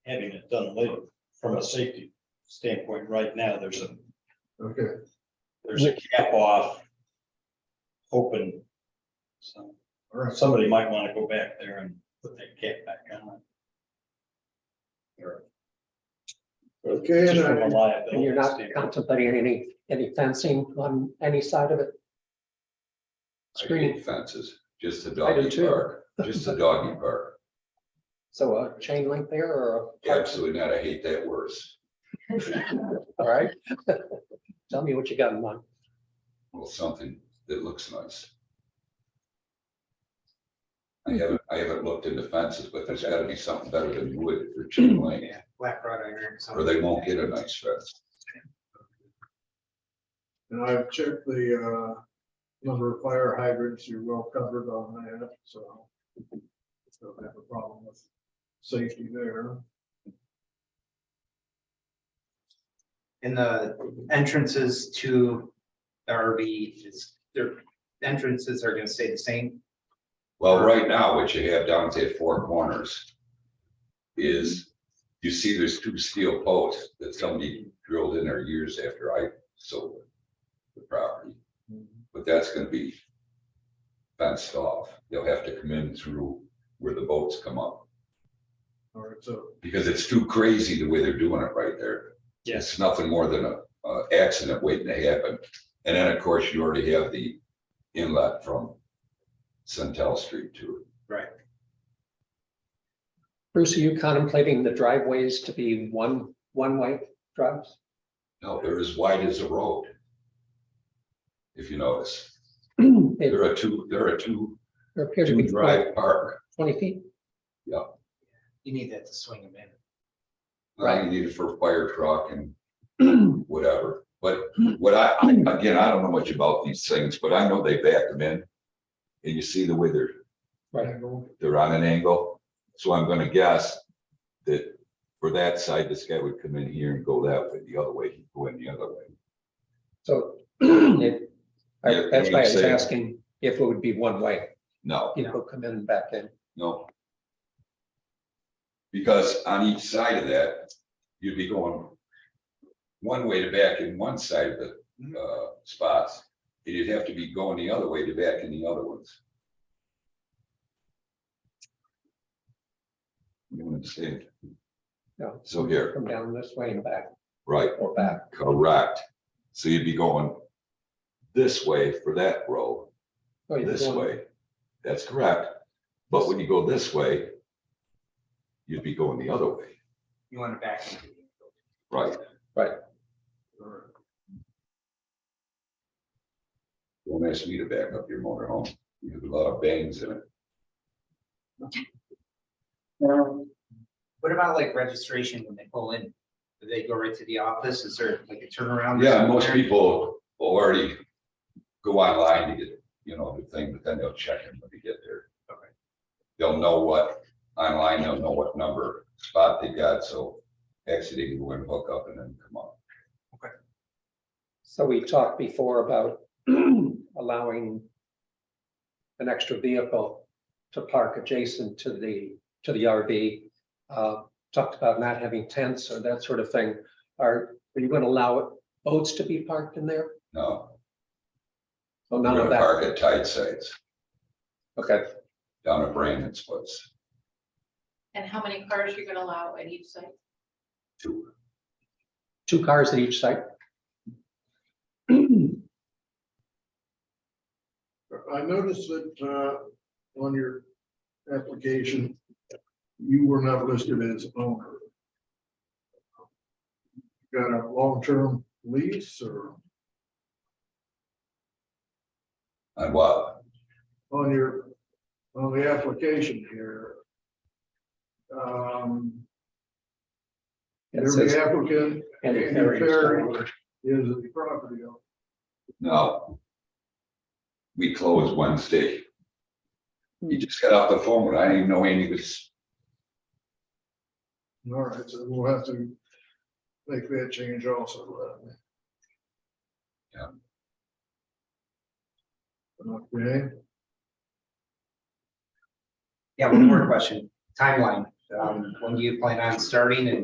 having it done later. From a safety standpoint, right now, there's a, Okay, there's a cap off. Open. So all right. somebody might want to go back there and put that cap back on. Okay, Just and from a I- liability And you're not standpoint. contemplating any, any fencing on any side of it? I Screen, hate fences, just a I do doggy too. park, just a doggy park. so a chain link there or, a- Absolutely not. I hate that worse. all right? Tell me what you got in mind. Well, something that looks nice. Hmm. I haven't, I haven't looked into fences, but there's gotta be something better than wood for chain link, Yeah, black wrought iron. or they won't get a nice fence. and I've checked the uh, number of fire hydrants, you're well covered on that, so. Don't have a problem with safety there. And the entrances to the RV is, their entrances are gonna stay the same. Well, right now, what you have down at the four corners is, you see there's two steel posts that somebody drilled in there years after I sold the property. But that's gonna be fenced off. They'll have to come in through where the boats come up, All right, so, because it's too crazy the way they're doing it right there. It's nothing more than a, uh, accident waiting to happen. And then, of course, you already have the inlet from Centel Street to it. Bruce, are you contemplating the driveways to be one, one-way drives? No, they're as wide as a road. If you notice, It there are two, there are two, there appears to two be twenty drive park. feet. You need that to swing them in. I Right. need it for a fire truck and whatever, but what I, I- again, I don't know much about these things, but I know they back them in. And you see the way they're, angle, they're on an angle, so I'm gonna guess that for that side, this guy would come in here and go that way, the other way, he'd go in the other way. So it- I- Yeah, that's what why I I'm was saying. asking if it would be one-way, No, people come in and back in. No. Because on each side of that, you'd be going one way to back in one side of the uh spots. And you'd have to be going the other way to back in the other ones. You understand? No. So here, Come down this way and back right, or back. correct. So you'd be going this way for that row, Oh, you're this going- way. That's correct. But when you go this way, you'd be going the other way, You wanna back into it. right? all right. Don't ask me to back up your motorhome. You have a lot of bangs in it. What about like registration when they pull in? Do they go right to the office? Is there like a turnaround? or Yeah, something most there? people already go online to get, you know, the thing, but then they'll check it when they get there. Okay. They'll know what online, they'll know what number spot they got, so actually they can go and hook up and then come up. So we talked before about allowing an extra vehicle to park adjacent to the, to the RV. uh, Talked about not having tents or that sort of thing. Are, are you going to allow boats to be parked in there? No, So we're none gonna of that. park at tight sites Okay, down at Brandon's place. And how many cars you're gonna allow at each site? Two, two cars at each site. I noticed that uh, on your application, you were not listed as owner. Got a long-term lease or on what? on your, on the application here? Um, It Every says- applicant and it Andy carries Perry. forward. is the property owner. No. We close Wednesday. Hmm. He just got off the phone, and I didn't even know Andy was All right, so we'll have to make that change also. then. Okay, Yeah, one more question. Timeline. Um, when do you plan on starting and